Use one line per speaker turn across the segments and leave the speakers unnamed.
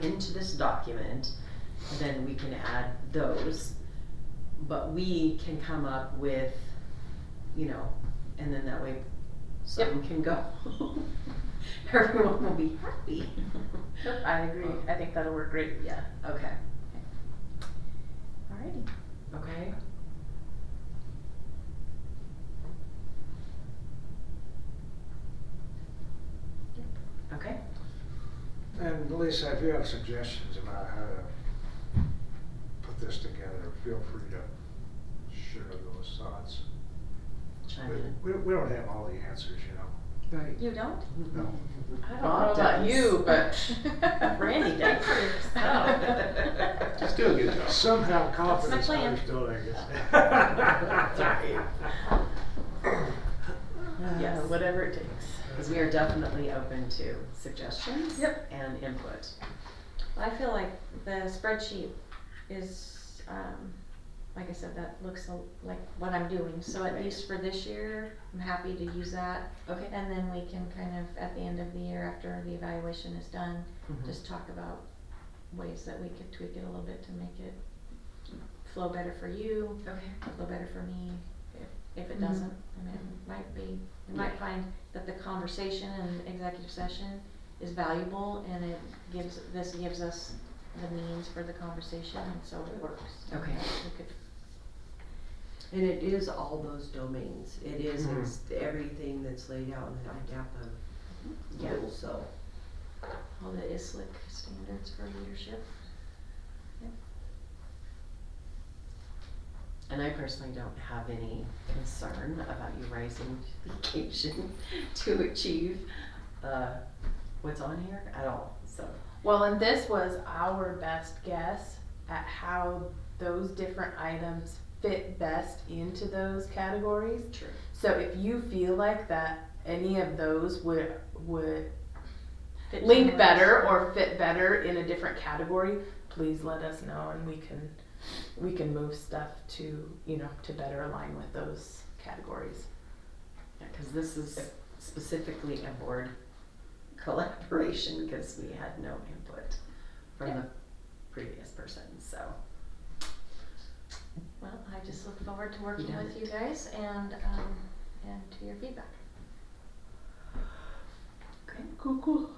into this document, then we can add those. But we can come up with, you know, and then that way some can go. Everyone will be happy. Oh,
Yep, I agree. I think that'll work great.
Yeah, okay,
Alrighty.
okay. Okay,
And Lisa, if you have suggestions about how to put this together, feel free to share those thoughts.
chime
But
in.
we, we don't have all the answers, you know.
Right.
You don't?
No.
I
Bob
don't know about
does.
you, but
Randy does for himself.
Just
do a good job.
Somehow confidence
plan.
matters, don't I guess?
Sorry.
Yes,
Yes.
Uh, whatever it takes.
Because we are definitely open to suggestions
Yep.
and input.
I feel like the spreadsheet is, um, like I said, that looks a- like what I'm doing, so at
Right.
least for this year, I'm happy to use that.
Okay.
And then we can kind of, at the end of the year, after the evaluation is done,
Mhm.
just talk about ways that we could tweak it a little bit to make it flow better for you,
Okay.
flow better for me, if, if
Mhm.
it doesn't. I mean, it might be, you might find that the conversation in executive session is valuable and it gives, this gives us the means for the conversation and so it works.
Okay.
We could-
And it is all those domains. It is
Mhm.
it's everything that's laid out in the
Yeah.
IDAPA rule, so.
All the ISLIC standards for leadership.
And I personally don't have any concern about you rising to the occasion to achieve uh, what's on here at all. So,
Well, and this was our best guess at how those different items fit best into those categories.
true.
So if you feel like that any of those would would
Fit
link
somewhere
better
else.
or fit better in a different category, please let us know and we can we can move stuff to, you know, to better align with those categories.
Because this is specifically a board collaboration because we had no input from the previous person. So,
Well, I just look forward to working
done
with you guys and, um, and to your feedback.
okay. Cool, cool.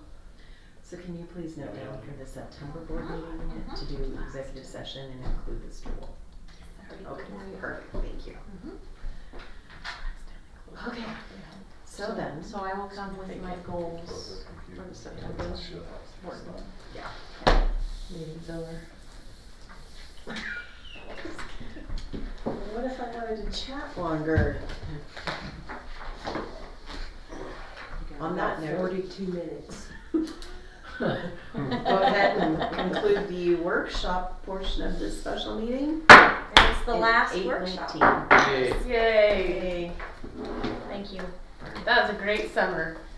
So, can you please note down for the September board
Uh-huh,
meeting to do executive session and include this tool? Okay, perfect. Thank you.
Mhm.
Okay. So then,
So I will come with my goals for
Computer.
the September board meeting.
Meeting's over.
What if I wanted to chat longer? On that note,
Forty-two minutes.
go ahead and conclude the workshop portion of this special meeting.
And it's the
It's
last
8:19.
workshop.
Yay.
Yay.
Yay.
Thank you.
That was a great summer.